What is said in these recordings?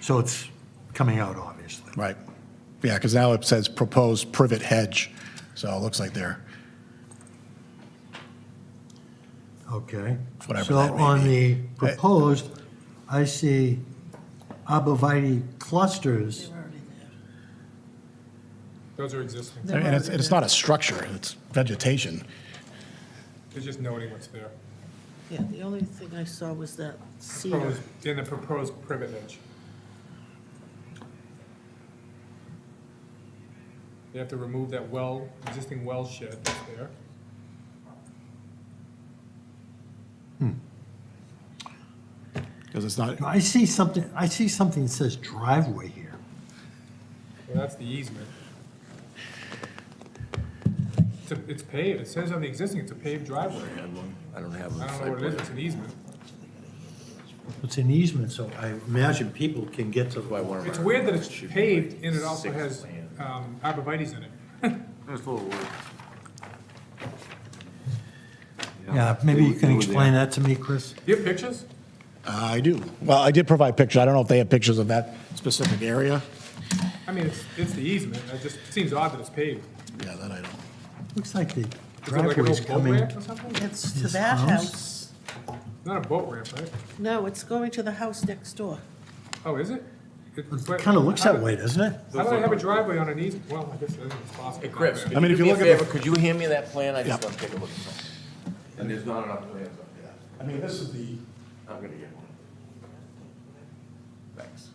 So it's coming out, obviously. Right. Yeah, because now it says proposed privet hedge, so it looks like they're, Okay. Whatever that may So on be. the proposed, I see arborvitae clusters. Those are existing. I mean, it's, it's not a structure, it's vegetation. They're just noting what's there. Yeah, the only thing I saw was that cedar. Proposed, in the proposed privet edge. They have to remove that well, existing well shed that's there. Because it's not, I see something, I see something that says driveway here. Well, that's the easement. It's a- It's paved, it says on the existing, it's a paved driveway. I don't have I don't know what it is, it's an easement. It's an easement, so I imagine people can get to the one of It's weird that it's paved and it also has um, arborvitae's in it. Yeah, maybe you can explain that to me, Chris? Do you have pictures? Ah, I do. Well, I did provide pictures, I don't know if they have pictures of that specific area. I mean, it's, it's the easement, it just seems odd that it's paved. Yeah, that I don't. Looks like the Is it like an driveway's old boat coming. ramp or something? It's to This that house? house. Not a boat ramp, right? No, it's going to the house next door. Oh, is it? It It kind of looks that way, doesn't it? How do I have a driveway on an easement? Well, I guess that is possible. Chris, I could mean, you if you do me a look at the- favor, could you hand me that plan? I just Yeah. want to take a look at something. And there's not enough plans up there. I mean, this is the. I'm gonna get one. Thanks.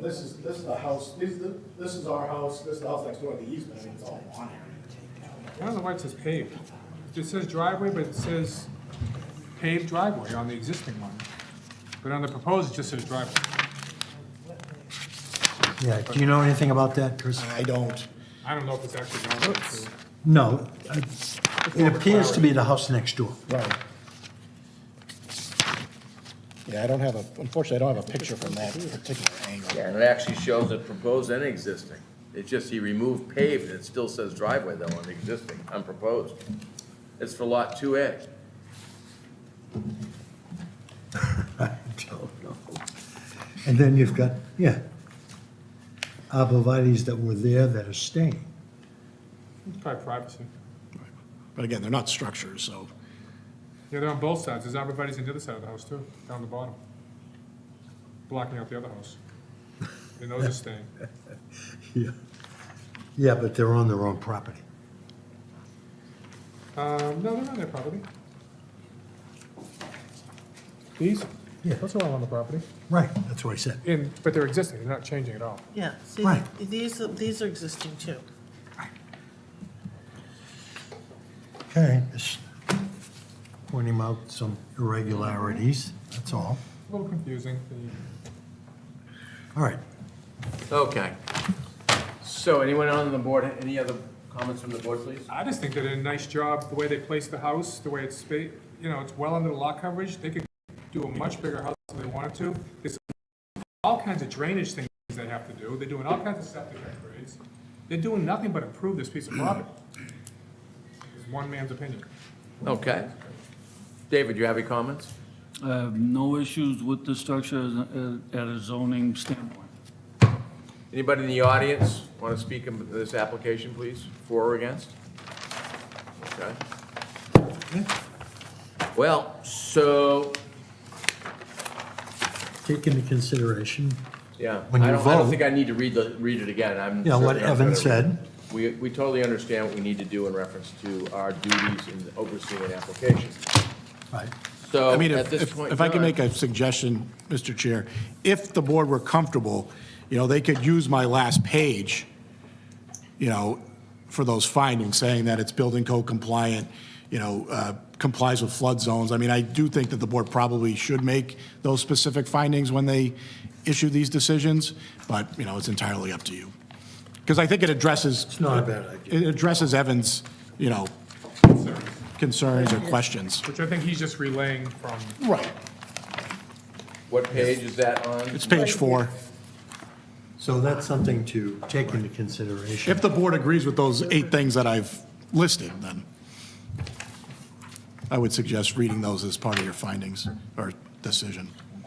This is, this is the house, this, this is our house, this is the house next door, the easement, I mean, it's all on here. I don't know why it says paved. It says driveway, but it says paved driveway on the existing one. But on the proposed, it just says driveway. Yeah, do you know anything about that, Chris? I don't. I don't know if it's actually driveway. too. No, I- it appears to be the house next door. Right. Yeah, I don't have a, unfortunately, I don't have a picture from that particular angle. And it actually shows it proposed and existing. It's just he removed paved, and it still says driveway though on the existing, unproposed. It's for lot two A. I don't know. And then you've got, yeah, arborvitae's that were there that are staying. It's Probably privacy. But again, they're not structures, so. Yeah, they're on both sides. There's arborvitae's on the other side of the house too, down the bottom. Blocking out the other house. And those are staying. Yeah. Yeah, but they're on their own property. Um, no, they're on their property. These? Yeah. Those are all on the property. Right, that's what I said. In, but they're existing, they're not changing at all. Yeah, see, Right. these, are- these are existing too. Okay, just pointing out some irregularities, that's all. A little confusing. The- All right, Okay. So anyone on the board, any other comments from the board, please? I just think they did a nice job, the way they placed the house, the way it's, spa- you know, it's well under the lot coverage. They could do a much bigger house if they wanted to. There's all kinds of drainage things they have to do. They're doing all kinds of septic upgrades. They're doing nothing but improve this piece of property. It's one man's opinion. Okay. David, you have any comments? I have Uh, no issues with the structure as- uh, at a zoning standpoint. Anybody in the audience want to speak on this application, please? For or against? Okay. Well, so, take into consideration, yeah, I When you don't, I don't vote- think I need to read the, read it again. I'm. yeah, what certainly not Evan gonna read it. said. We, we totally understand what we need to do in reference to our duties in overseeing an application. Right, So I mean, at if, this if- point. if I can in make time- a suggestion, Mr. Chair, if the board were comfortable, you know, they could use my last page, you know, for those findings, saying that it's building code compliant, you know, uh, complies with flood zones. I mean, I do think that the board probably should make those specific findings when they issue these decisions, but, you know, it's entirely up to you. Because I think it addresses. It's not a bad idea. It addresses Evan's, you know, concerns or questions. Which I think he's just relaying from, Right. What page is that on? It's page four. so that's something to take into consideration. If the board agrees with those eight things that I've listed, then I would suggest reading those as part of your findings or decision.